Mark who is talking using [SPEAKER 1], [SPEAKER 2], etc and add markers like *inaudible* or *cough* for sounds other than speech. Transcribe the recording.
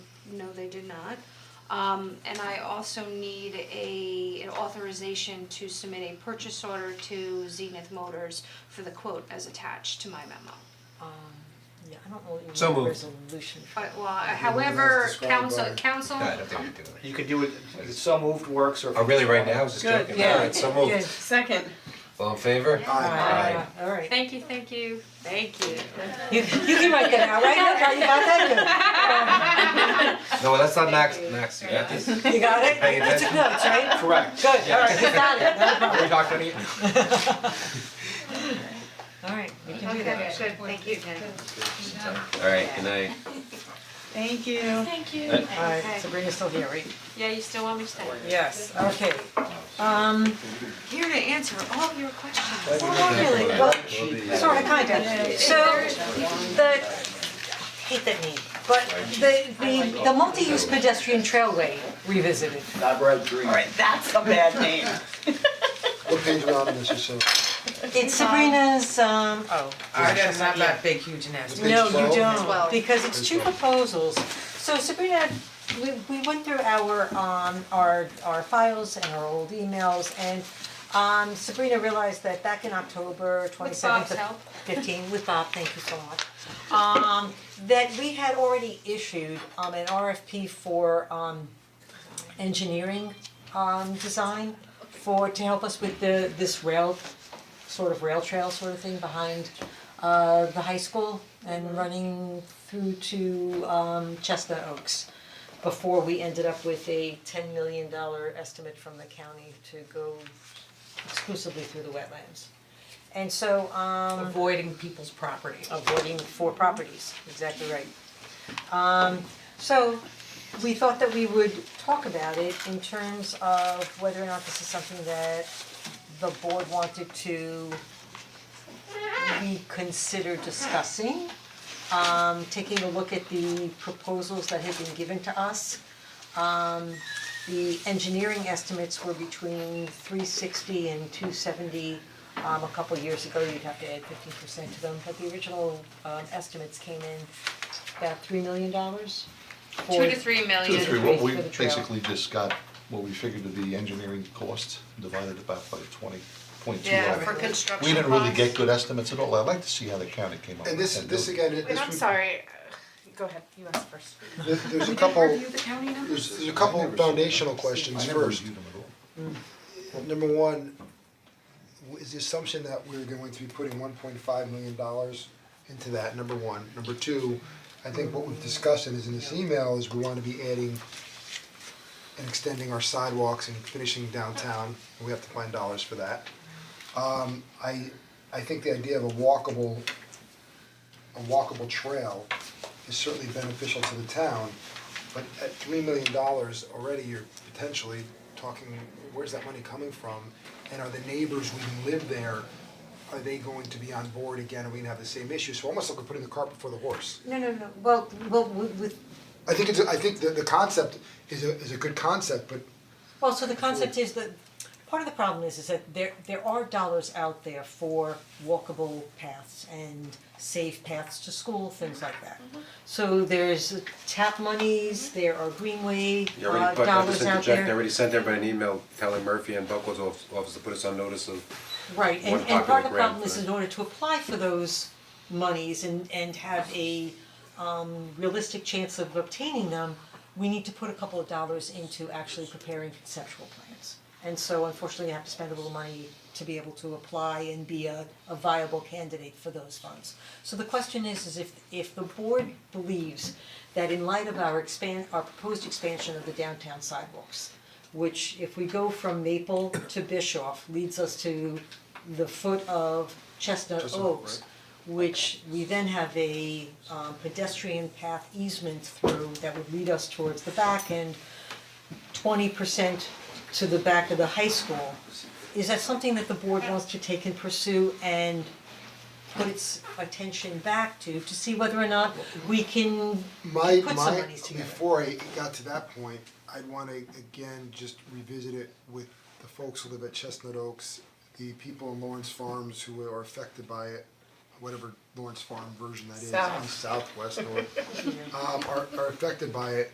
[SPEAKER 1] No, they did not. Um, and I also need a, an authorization to submit a purchase order to Zenith Motors for the quote as attached to my memo.
[SPEAKER 2] Um, yeah, I don't know what you
[SPEAKER 3] So
[SPEAKER 2] want a
[SPEAKER 3] moved.
[SPEAKER 2] resolution for.
[SPEAKER 1] But, well, however,
[SPEAKER 4] that's described
[SPEAKER 1] council,
[SPEAKER 4] by-
[SPEAKER 1] council,
[SPEAKER 5] Yeah, I don't think we do it.
[SPEAKER 4] You could do it, so moved works or.
[SPEAKER 5] Oh, really, right now, I was just
[SPEAKER 2] Good,
[SPEAKER 5] joking,
[SPEAKER 2] yeah.
[SPEAKER 5] alright, so moved.
[SPEAKER 2] Good.
[SPEAKER 6] Second.
[SPEAKER 5] All in favor?
[SPEAKER 2] Ah, alright.
[SPEAKER 1] thank you, thank you, thank you.
[SPEAKER 2] You
[SPEAKER 1] *laughs*
[SPEAKER 2] you can write that out, right? No problem about that,
[SPEAKER 5] No, that's not Max, Max, you got this?
[SPEAKER 2] good. You got it?
[SPEAKER 5] Hey,
[SPEAKER 2] You took notes, right?
[SPEAKER 4] Correct.
[SPEAKER 2] Good, alright, you got it, no
[SPEAKER 4] Are
[SPEAKER 5] *laughs*
[SPEAKER 2] problem.
[SPEAKER 4] we talking any?
[SPEAKER 2] *laughs* Alright, we can do that.
[SPEAKER 6] good, thank you,
[SPEAKER 5] Alright, good night.
[SPEAKER 2] Thank you.
[SPEAKER 1] Thank you.
[SPEAKER 2] Alright, Sabrina's still here, right?
[SPEAKER 1] Yeah, you still want me to stay?
[SPEAKER 2] Yes, okay. Um,
[SPEAKER 1] Here to answer all of your questions.
[SPEAKER 2] well, not really, well, sort of, kind of. So, the, hate that name, but the, the, the multi-use pedestrian trailway revisited.
[SPEAKER 4] I've read three.
[SPEAKER 6] Alright, that's a bad name.
[SPEAKER 4] What page are on this, so?
[SPEAKER 2] It's Sabrina's, um, oh.
[SPEAKER 7] I don't have that big huge nest.
[SPEAKER 2] No, you
[SPEAKER 4] twelve?
[SPEAKER 2] don't,
[SPEAKER 1] Twelve.
[SPEAKER 2] because it's two proposals. So Sabrina, we we went through our um our our files and our old emails and um Sabrina realized that back in October twenty seventh
[SPEAKER 1] Bob's help.
[SPEAKER 2] fifteen, with Bob, thank you so much. Um that we had already issued um an RFP for um engineering um design for to help us with the this rail sort of rail trail sort of thing behind uh the high school and running through to um Chestnut Oaks before we ended up with a ten million dollar estimate from the county to go exclusively through the wetlands. And so um
[SPEAKER 7] Avoiding people's property.
[SPEAKER 2] avoiding four properties, exactly right. Um, so, we thought that we would talk about it in terms of whether or not this is something that the board wanted to reconsider discussing. Um, taking a look at the proposals that had been given to us. Um, the engineering estimates were between three sixty and two seventy. Um, a couple years ago, you'd have to add fifteen percent to them, but the original um estimates came in about three million dollars.
[SPEAKER 1] Two to three million.
[SPEAKER 2] Two to
[SPEAKER 8] Three, what we
[SPEAKER 2] for the trail.
[SPEAKER 8] basically just got, what we figured to be engineering costs, divided it by by twenty point two.
[SPEAKER 6] Yeah, for construction
[SPEAKER 8] We didn't really get
[SPEAKER 6] costs.
[SPEAKER 8] good estimates at all, I'd like to see how the county came up with
[SPEAKER 4] And this,
[SPEAKER 8] that.
[SPEAKER 4] this again, this
[SPEAKER 6] Wait, I'm
[SPEAKER 4] would-
[SPEAKER 6] sorry, go ahead, you asked first.
[SPEAKER 4] there- there's a couple,
[SPEAKER 1] the county numbers?
[SPEAKER 4] there's there's a couple foundational questions
[SPEAKER 8] I never
[SPEAKER 4] first.
[SPEAKER 8] reviewed them at all.
[SPEAKER 4] Number one, w- is the assumption that we're going to be putting one point five million dollars into that, number one. Number two, I think what we've discussed and is in this email is we wanna be adding and extending our sidewalks and finishing downtown, and we have to find dollars for that. Um, I, I think the idea of a walkable, a walkable trail is certainly beneficial to the town, but at three million dollars already, you're potentially talking, where's that money coming from? And are the neighbors who live there, are they going to be on board again, are we gonna have the same issue? So almost like we're putting the cart before the horse.
[SPEAKER 2] No, no, no, well, well, with with
[SPEAKER 4] I think it's, a- I think the, the concept is a, is a good concept, but
[SPEAKER 2] Well, so the concept is that, part of the problem is, is that there, there are dollars out there for walkable paths and safe paths to school, things like that. So there's tap monies, there are greenway,
[SPEAKER 5] You
[SPEAKER 2] uh,
[SPEAKER 5] already, but I
[SPEAKER 2] dollars
[SPEAKER 5] just
[SPEAKER 2] out
[SPEAKER 5] interject, I
[SPEAKER 2] there,
[SPEAKER 5] already sent everybody an email telling Murphy and Buckles of- office to put us on notice of,
[SPEAKER 2] right, and,
[SPEAKER 5] one
[SPEAKER 2] and part
[SPEAKER 5] popular
[SPEAKER 2] of the
[SPEAKER 5] grant
[SPEAKER 2] problem
[SPEAKER 5] for
[SPEAKER 2] is
[SPEAKER 5] that.
[SPEAKER 2] in order to apply for those monies and, and have a, um, realistic chance of obtaining them, we need to put a couple of dollars into actually preparing conceptual plans. And so unfortunately, you have to spend a little money to be able to apply and be a, a viable candidate for those funds. So the question is, is if, if the board believes that in light of our expand, our proposed expansion of the downtown sidewalks, which if we go from Maple to Bischoff leads us to the foot of Chestnut
[SPEAKER 4] Chestnut,
[SPEAKER 2] Oaks,
[SPEAKER 4] right.
[SPEAKER 2] which we then have a um, pedestrian path easement through that would lead us towards the back end, twenty percent to the back of the high school. Is that something that the board wants to take and pursue and put its attention back to, to see whether or not we can
[SPEAKER 4] my
[SPEAKER 2] put some
[SPEAKER 4] my,
[SPEAKER 2] monies together?
[SPEAKER 4] before I got to that point, I'd wanna again just revisit it with the folks who live at Chestnut Oaks, the people in Lawrence Farms who are affected by it, whatever Lawrence Farm version that is,
[SPEAKER 6] South.
[SPEAKER 4] east, southwest, north, um, are are affected by it.